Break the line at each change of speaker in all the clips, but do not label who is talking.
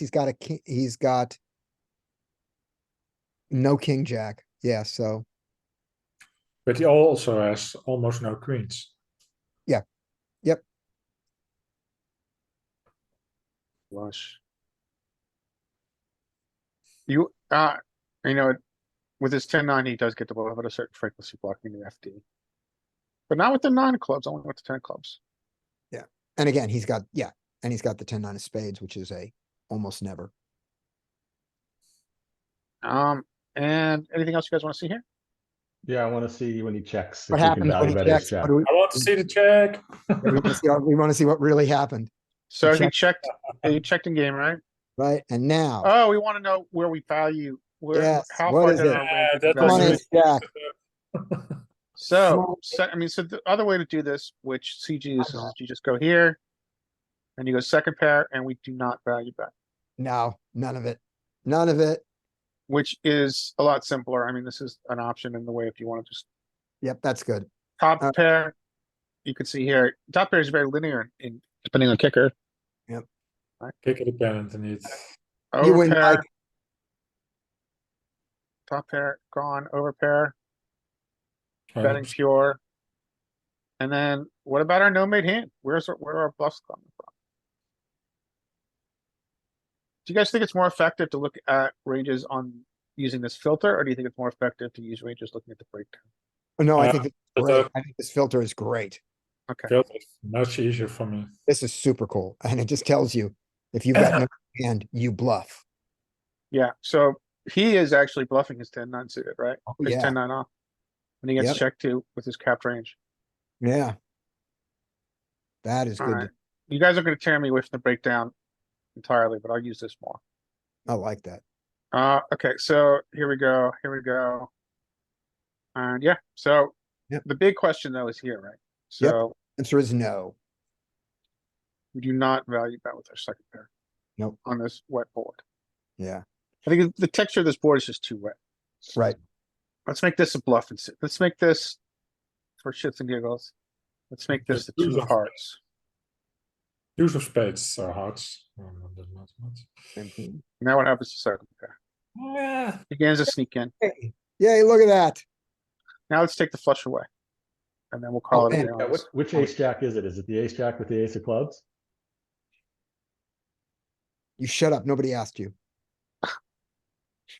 he's got a, ki- he's got no king jack. Yeah, so,
But he also has almost no queens.
Yeah. Yep.
Flush.
You, uh, you know, with his ten nine, he does get the ball at a certain frequency blocking the FD. But not with the nine clubs, only with the ten clubs.
and again, he's got, yeah, and he's got the ten nine of spades, which is a almost never.
Um, and anything else you guys wanna see here?
Yeah, I wanna see when he checks. if
What
we
happened
can
when
value
he
bet his
checks? What
check.
do we-
I want to see the check.
we wanna see- We want to see what really happened,
So he
checked.
checked, he checked in game, right?
right? And now,
Oh, we wanna know where we value, where,
Uh-huh. Yes,
how
what
far
is
down
it?
our range
Yeah,
we
that
value.
one
was-
ace jack,
So,
Small-
so, I mean, so the other way to do this, which CG is,
know.
is you just go here. And you go second pair and we do not value bet,
no, none of it, none of it.
which is a lot simpler. I mean, this is an option in the way if you wanna just
Yep, that's good.
Top
Uh,
pair, you can see here, top pair is very linear in depending on kicker.
Kick it dependent and it's
You
Over
win, Mike.
pair, top pair, gone, over pair,
kind
betting
of
pure. And then what about our no made hand? Where's, our- where are our bluffs coming from? Do you guys think it's more effective to look at ranges on using this filter, or do you think it's more effective to use ranges looking at the breakdown?
No, I
Yeah,
think, it's
but,
great.
uh,
I think this filter is great.
Okay,
filter is much easier for me.
This is super cool. And it just tells you, if you've got no hand, you bluff.
yeah, so he is actually bluffing his ten nine suited, right?
Oh,
His
yeah,
ten nine off. When he gets
Yep.
checked to with his capped range.
yeah. That is good.
Alright,
to-
you guys are gonna tear me with the breakdown entirely, but I'll use this more.
I like that.
Uh, okay, so here we go, here we go. And yeah, so
Yep.
the big question though is here, right?
Yep.
So
Answer is no.
we do not value bet with our second pair.
Nope.
On this wet board.
Yeah,
I think the texture of this board is just too wet.
right.
Let's make this a bluff and sit. Let's make this for shits and giggles. Let's make this the
Just lose
two of
on-
hearts.
Use of spades or hearts. No, no, that's not much.
Mhm.
Now what happens to second pair?
Yeah,
Begins to sneak in.
Hey, Yay, look at that.
Now let's take the flush away. And then we'll
Oh,
call it. a
and-
day on
Yeah,
this.
which, which ace jack is it? Is it the ace jack with the ace of clubs?
You shut up. Nobody asked you.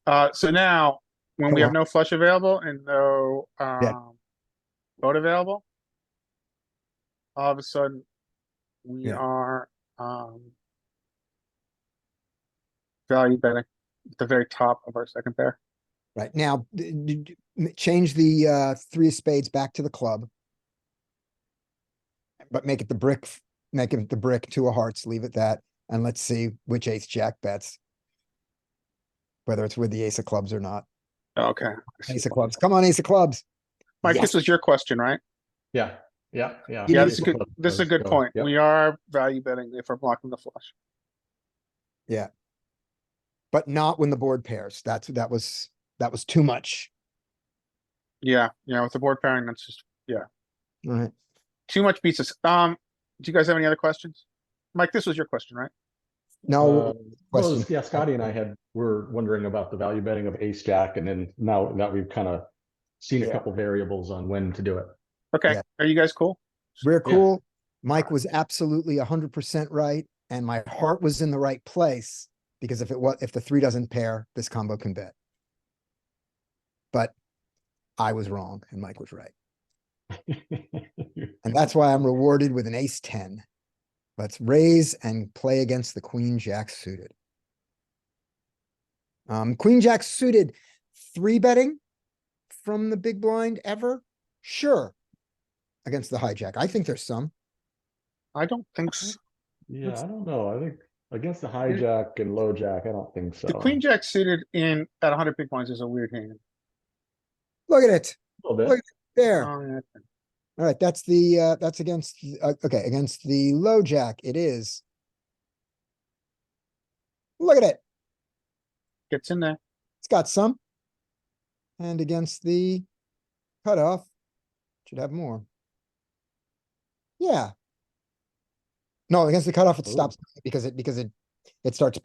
Uh, so now, when we
Come
have no flush available and no, um, boat available, all of a sudden, we
Yeah.
are, um, value betting at the very top of our second pair.
Right now, d- d- d- m- change the uh, three of spades back to the club. But make it the brick, f- make it the brick, two of hearts, leave it that, and let's see which ace jack bets. Whether it's with the ace of clubs or not.
Oh, Okay. I see
Ace of
why.
clubs, come on, ace of clubs.
Mike,
Yes.
this was your question, right?
Yeah, yeah,
Yeah,
yeah.
Yeah,
need
this
to
is good, this is a good point. We are value betting if we're blocking the flush.
But not when the board pairs. That's, that was, that was too much.
Yeah, yeah, with the board pairing, that's just
Alright,
too much beats us. Um, do you guys have any other questions? Mike, this was your question, right?
no,
Uh, Well,
question.
yeah, Scotty and I had, were wondering about the value betting of ace jack and then now that we've kind of seen a
Yeah.
couple variables on when to do it.
Okay,
Yeah.
are you guys cool?
we're
yeah.
cool. Mike was absolutely hundred percent right, and my heart was in the right place. Because if it was, if the three doesn't pair, this combo can bet. But I was wrong and Mike was right. And that's why I'm rewarded with an ace ten. Let's raise and play against the queen jack suited. Um, queen jack suited, three betting from the big blind ever? Sure. Against the hijack. I think there's some.
I don't think so.
Yeah, I don't know. I think against the hijack and low jack, I don't think so.
The queen jack suited in at hundred big blinds is a weird hand.
Look at it.
A little bit.
Look, There.
Oh, yeah.
All right, that's the, uh, that's against, th- uh, okay, against the low jack, it is. Look at it,
Gets in there.
it's got some. And against the cutoff, should have more. Yeah. No, against the cutoff, it
Ooh.
stops because it, because it, it starts